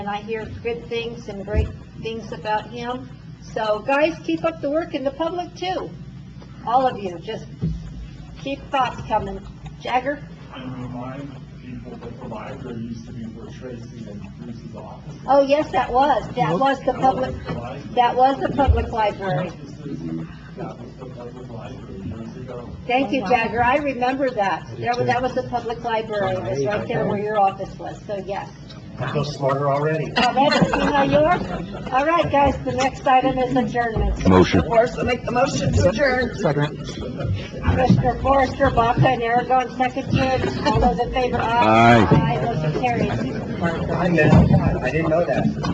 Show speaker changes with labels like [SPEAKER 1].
[SPEAKER 1] and I hear good things and great things about him. So guys, keep up the work in the public too. All of you, just keep thoughts coming. Jagger?
[SPEAKER 2] and remind people that the library used to be where Tracy and Bruce's office. is.
[SPEAKER 1] Oh, yes, that was, that was the public, that was the public library.
[SPEAKER 2] This is- That was the public library years ago.
[SPEAKER 1] Thank you, Jagger, I remember that. That was, that was the public library, it was right there where your office was, so yes.
[SPEAKER 3] I feel smarter already.
[SPEAKER 1] Now, that's, you know, yours. All right, guys, the next item is adjournment.
[SPEAKER 4] Motion.
[SPEAKER 5] course, I make the motion to adjourn.
[SPEAKER 4] Second.
[SPEAKER 1] Commissioner Forrester, Baca, and Aragon, second to all those in favor, aye.
[SPEAKER 4] Aye.
[SPEAKER 1] Aye, motion carries.
[SPEAKER 3] I meant, I didn't know that.